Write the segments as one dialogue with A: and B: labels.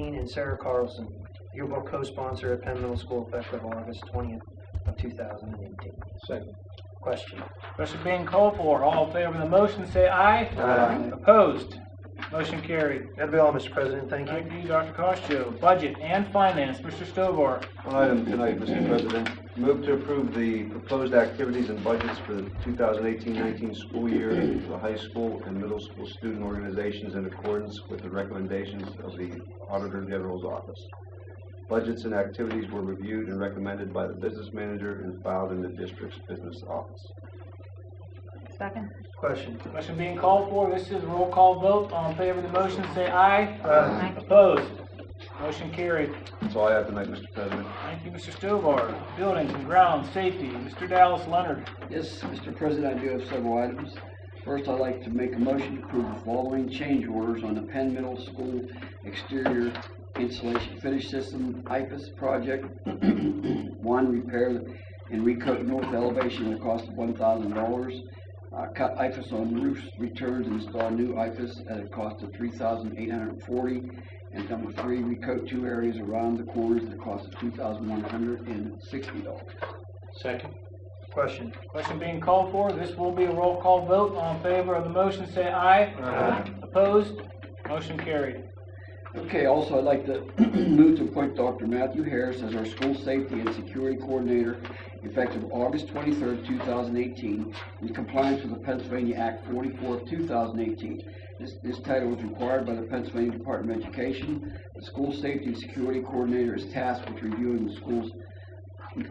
A: Dean and Sarah Carlson, yearbook co-sponsor at Penn Middle School effective August twentieth of two thousand and eighteen.
B: Second.
A: Question?
C: Question being called for. All in favor of the motion, say aye.
A: Aye.
C: Opposed? Motion carried.
A: That'll be all, Mr. President, thank you.
C: Thank you, Dr. Costo. Budget and Finance, Mr. Stovall.
B: One item tonight, Mr. President. Move to approve the proposed activities and budgets for the 2018-19 school year for the high school and middle school student organizations in accordance with the recommendations of the Auditor General's Office. Budgets and activities were reviewed and recommended by the business manager and filed in the district's business office.
D: Second.
A: Question?
C: Question being called for. This is a roll call vote. All in favor of the motion, say aye.
D: Aye.
C: Opposed? Motion carried.
B: That's all I have tonight, Mr. President.
C: Thank you, Mr. Stovall. Buildings and Grounds Safety, Mr. Dallas Leonard.
E: Yes, Mr. President, I do have several items. First, I'd like to make a motion to approve the following change orders on the Penn Middle School exterior insulation finish system, IPIS project. One, repair and recoat north elevation at a cost of one thousand dollars. Uh, Cut IPIS on roofs, returns, and install new IPIS at a cost of three thousand eight hundred and forty. And number three, recoat two areas around the corners at a cost of two thousand one hundred and sixty dollars.
C: Second.
A: Question?
C: Question being called for. This will be a roll call vote. All in favor of the motion, say aye.
A: Aye.
C: Opposed? Motion carried.
E: Okay, also, I'd like to move to appoint Dr. Matthew Harris as our school safety and security coordinator effective August twenty-third, two thousand eighteen, in compliance with the Pennsylvania Act forty-four of two thousand eighteen. This, this title was required by the Pennsylvania Department of Education. The school safety and security coordinator is tasked with reviewing the school's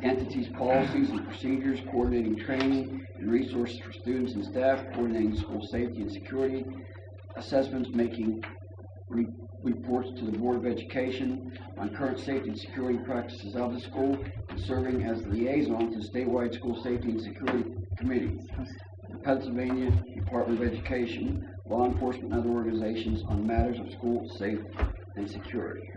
E: entities, policies, and procedures, coordinating training and resources for students and staff, coordinating school safety and security assessments, making re- reports to the Board of Education on current safety and security practices of the school, and serving as liaison to statewide school safety and security committees, the Pennsylvania Department of Education, law enforcement, and other organizations on matters of school safety and security.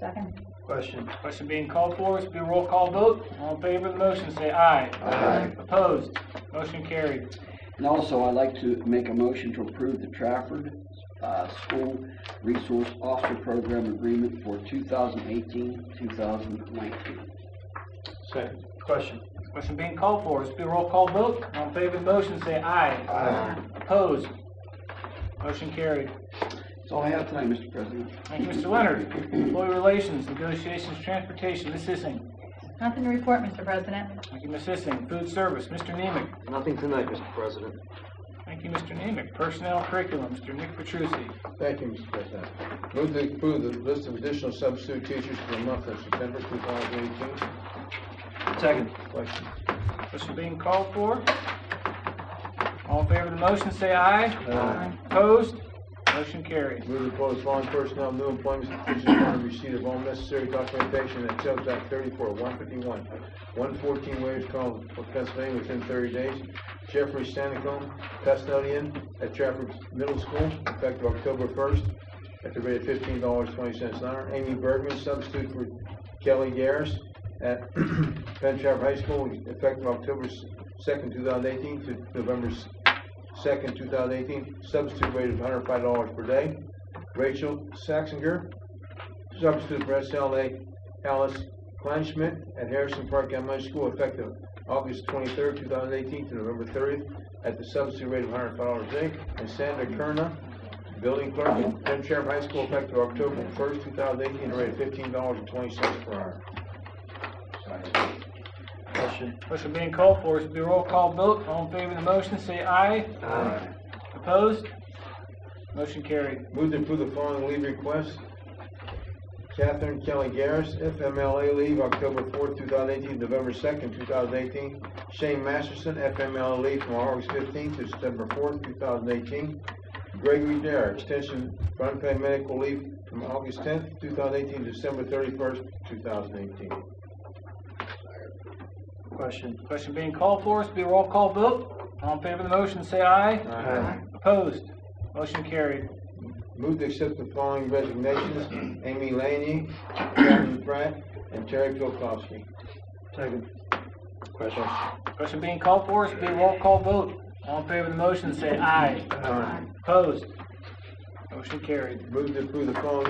D: Second.
A: Question?
C: Question being called for, this will be a roll call vote. All in favor of the motion, say aye. Aye. Opposed? Motion carried.
E: And also, I'd like to make a motion to approve the Trafford uh, School Resource Officer Program Agreement for 2018-2019.
C: Second.
A: Question?
C: Question being called for, this will be a roll call vote. All in favor of the motion, say aye.
A: Aye.
C: Opposed? Motion carried.
E: That's all I have tonight, Mr. President.
C: Thank you, Mr. Leonard. Employee Relations, Negotiations, Transportation, Ms. Sissing.
D: Nothing to report, Mr. President.
C: Thank you, Ms. Sissing. Food Service, Mr. Nemec.
F: Nothing tonight, Mr. President.
C: Thank you, Mr. Nemec. Personnel Curriculum, Mr. Nick Petrusi.
G: Thank you, Mr. President. Move to approve the list of additional substitute teachers for the month of September 2018.
A: Second?
C: Question being called for. All in favor of the motion, say aye. Aye. Opposed? Motion carried.
G: Move to close following personnel new employment positions upon receipt of all necessary documentation and Sales Act 34, 151, 114 Waves Cove, Pennsylvania, within 30 days. Jeffrey Stanicom, custodian at Trafford Middle School, effective October 1st, at the rate of $15.20 an hour. Amy Bergman, substitute for Kelly Garris at Penn Trafford High School, effective October 2nd, 2018 to November 2nd, 2018, substitute rate of $105 per day. Rachel Saxinger, substitute for SLA Alice Kleinschmidt at Harrison Park Elementary School, effective August 23rd, 2018 to November 30th, at the substitute rate of $105 a day. And Sandra Kerna, building clerk at Penn Trafford High School, effective October 1st, 2018, rate of $15.20 per hour.
A: Question?
C: Motion being called for, this will be a roll call vote. All in favor of the motion, say aye.
A: Aye.
C: Opposed? Motion carried.
G: Move to approve the following leave requests. Catherine Kelly Garris, FMLA leave, October fourth, two thousand eighteen, November second, two thousand eighteen. Shane Masterson, FMLA leave from August fifteenth to September fourth, two thousand eighteen. Gregory Dare, extension for unpaid medical leave from August tenth, two thousand eighteen, to December thirty-first, two thousand eighteen.
A: Question?
C: Question being called for, this will be a roll call vote. All in favor of the motion, say aye.
A: Aye.
C: Opposed? Motion carried.
G: Move to accept the following resignations, Amy Laney, Karen Pratt, and Terry Pilkowski.
A: Second? Question?
C: Question being called for, this will be a roll call vote. All in favor of the motion, say aye. Opposed? Motion carried.
G: Move to approve the following